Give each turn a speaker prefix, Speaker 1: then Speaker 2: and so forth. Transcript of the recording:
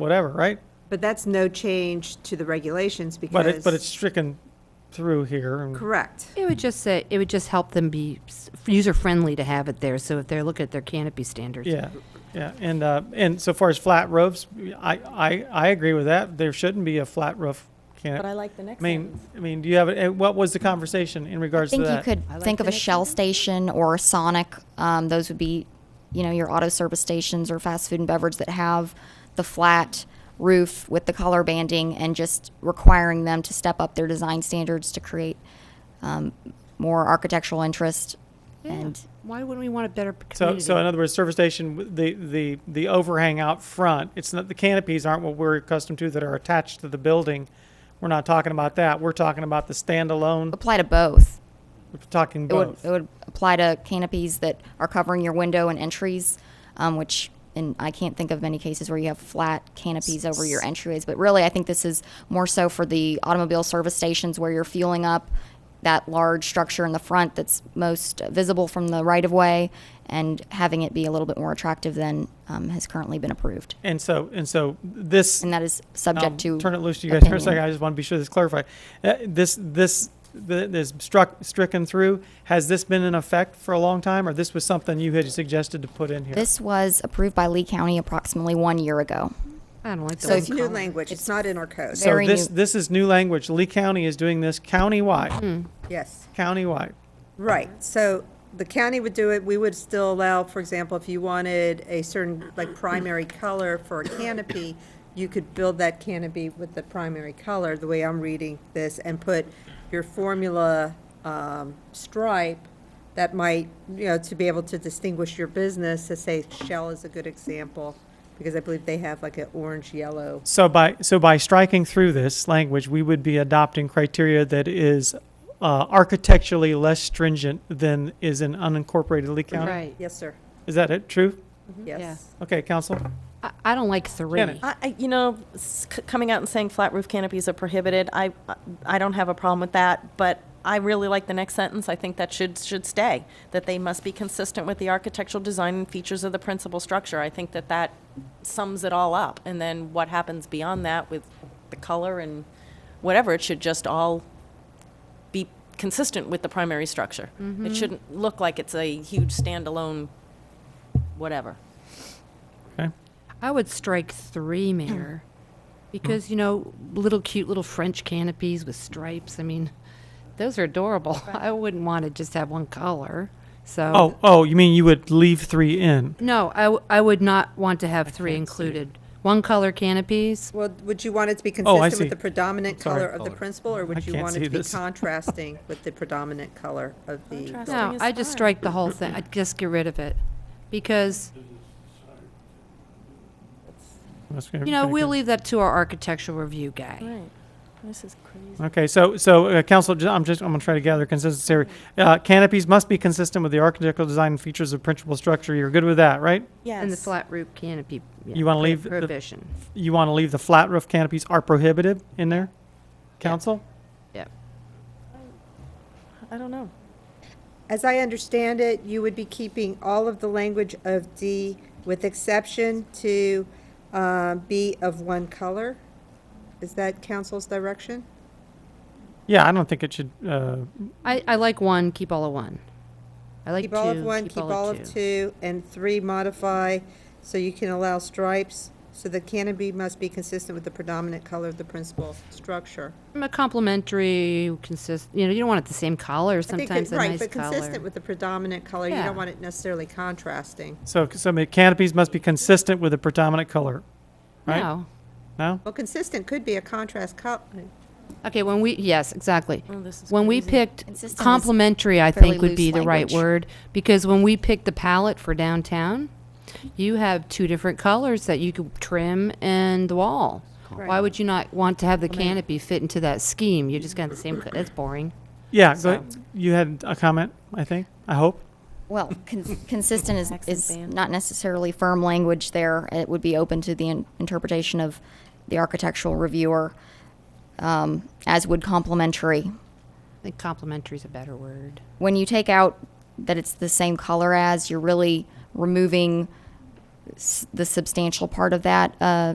Speaker 1: whatever, right?
Speaker 2: But that's no change to the regulations because.
Speaker 1: But it, but it's stricken through here. and-
Speaker 2: Correct.
Speaker 3: It would just say, it would just help them be user friendly to have it there. So if they're looking at their canopy standards.
Speaker 1: Yeah, yeah, and, uh, and so far as flat roofs, I, I, I agree with that. There shouldn't be a flat roof
Speaker 4: But I
Speaker 1: canopy.
Speaker 4: like the
Speaker 1: I
Speaker 4: next
Speaker 1: mean,
Speaker 4: sentence.
Speaker 1: I mean, do you have, and what was the conversation in regards to
Speaker 5: think
Speaker 1: that?
Speaker 5: you could think of a Shell station or a Sonic. Um, those would be, you know, your auto service stations or fast food and beverage that have the flat roof with the color banding and just requiring them to step up their design standards to create um, more architectural interest. And
Speaker 3: Why wouldn't we want a better
Speaker 1: So,
Speaker 3: community?
Speaker 1: so in other words, service station, w- the, the, the overhang out front, it's not, the canopies aren't what we're accustomed to that are attached to the building. We're not talking about that. We're talking about the standalone,
Speaker 5: apply to both.
Speaker 1: we're talking
Speaker 5: It would,
Speaker 1: both.
Speaker 5: it would apply to canopies that are covering your window and entries, um, which, and I can't think of many cases where you have flat canopies over your entryways, but really, I think this is more so for the automobile service stations where you're fueling up that large structure in the front that's most visible from the right of way and having it be a little bit more attractive than, um, has currently been approved.
Speaker 1: And so, and so this,
Speaker 5: And that is
Speaker 1: I'll
Speaker 5: subject to.
Speaker 1: Um, turn it loose to you guys for a
Speaker 5: opinion.
Speaker 1: second. I just want to be sure this clarified. Uh, This, this, the- this struck, stricken through, has this been in effect for a long time or this was something you had suggested to put in here?
Speaker 5: This was approved by Lee County approximately one year ago.
Speaker 3: I don't like the
Speaker 2: So
Speaker 3: old
Speaker 2: it's new
Speaker 3: color.
Speaker 2: language. It's not in our code.
Speaker 1: So
Speaker 5: very
Speaker 1: this,
Speaker 5: new.
Speaker 1: this is new language. Lee County is doing this countywide,
Speaker 5: Hmm.
Speaker 2: Yes,
Speaker 1: countywide.
Speaker 2: right. So the county would do it. We would still allow, for example, if you wanted a certain, like, primary color for a canopy, you could build that canopy with the primary color, the way I'm reading this, and put your formula um, stripe that might, you know, to be able to distinguish your business, to say Shell is a good example, because I believe they have like an orange-yellow.
Speaker 1: So by, so by striking through this language, we would be adopting criteria that is uh, architecturally less stringent than is in unincorporated Lee County?
Speaker 3: Right.
Speaker 2: Yes, sir.
Speaker 1: Is that it? True?
Speaker 2: Yes.
Speaker 1: Okay, council?
Speaker 3: I, I don't like three.
Speaker 1: Janet.
Speaker 4: I, I- you know, s- c- coming out and saying flat roof canopies are prohibited, I, I don't have a problem with that, but I really like the next sentence. I think that should, should stay, that they must be consistent with the architectural design and features of the principal structure. I think that that sums it all up. And then what happens beyond that with the color and whatever, it should just all be consistent with the primary structure. It shouldn't look like it's a huge standalone whatever.
Speaker 1: Okay.
Speaker 3: I would strike three, Mayor, because, you know, little cute little French canopies with stripes. I mean, those are adorable. I wouldn't want to just have one color. So.
Speaker 1: Oh, oh, you mean you would leave three in?
Speaker 3: No, I, w- I would not want to have three included. One color canopies.
Speaker 2: Well, would you want it to be
Speaker 1: Oh, I
Speaker 2: consistent
Speaker 1: see.
Speaker 2: with the predominant
Speaker 1: Sorry. Oh.
Speaker 2: color of the principal, or would you
Speaker 1: can't
Speaker 2: want it
Speaker 1: see
Speaker 2: to be
Speaker 1: this.
Speaker 2: contrasting with the predominant color of the?
Speaker 4: Contrast.
Speaker 3: No,
Speaker 4: Something is
Speaker 3: I just
Speaker 4: fine.
Speaker 3: strike the whole thing. I'd just get rid of it. Because, you know, we'll e- leave that to our architectural review guy.
Speaker 4: Right. This is crazy.
Speaker 1: Okay, so, so, uh, council, ju- I'm just, I'm gonna try to gather consistency here. Uh, canopies must be consistent with the architectural design and features of principal structure. You're good with that, right?
Speaker 4: Yes.
Speaker 3: And the flat roof canopy. yeah,
Speaker 1: You wanna
Speaker 3: pro-
Speaker 1: leave the-
Speaker 3: Prohibition.
Speaker 1: You wanna leave the flat roof canopies are prohibited in there? Council?
Speaker 3: Yeah.
Speaker 4: I don't know.
Speaker 2: As I understand it, you would be keeping all of the language of D with exception to uh, be of one color? Is that council's direction?
Speaker 1: Yeah, I don't think it should, uh,
Speaker 3: I, I like one, keep all of one. I like two,
Speaker 2: Keep all of one, keep all of two, and three modify, so you can allow stripes, so the canopy must be consistent with the predominant color of the principal structure.
Speaker 3: I'm A complimentary consist, you know, you don't want it the same color,
Speaker 2: I think that-
Speaker 3: sometimes a
Speaker 2: right,
Speaker 3: nice
Speaker 2: But consistent
Speaker 3: color.
Speaker 2: with the predominant color, you
Speaker 3: Yeah.
Speaker 2: don't want it necessarily contrasting.
Speaker 1: so, so the canopies must be consistent with the predominant color, right?
Speaker 3: No.
Speaker 1: No?
Speaker 2: Well, consistent could be a contrast color.
Speaker 3: Okay, when we, yes, exactly.
Speaker 4: Oh, this is
Speaker 3: When we
Speaker 4: crazy.
Speaker 3: picked
Speaker 5: Consistent is
Speaker 3: complimentary, I
Speaker 5: fairly
Speaker 3: think would be
Speaker 5: loose
Speaker 3: the right
Speaker 5: language.
Speaker 3: word, because when we picked the palette for downtown, you have two different colors that you could trim and the wall. Why would you not want to have the canopy fit into that scheme? You just got the same, co- that's boring.
Speaker 1: Yeah, go ahead. You had a comment, I think, I hope?
Speaker 5: Well, con- consistent is,
Speaker 4: Accent
Speaker 5: is
Speaker 4: ban.
Speaker 5: not necessarily firm language there. It would be open to the in- interpretation of the architectural reviewer, um, as would complementary.
Speaker 3: I think complimentary is a better word.
Speaker 5: When you take out that it's the same color as, you're really removing s- the substantial part of that uh,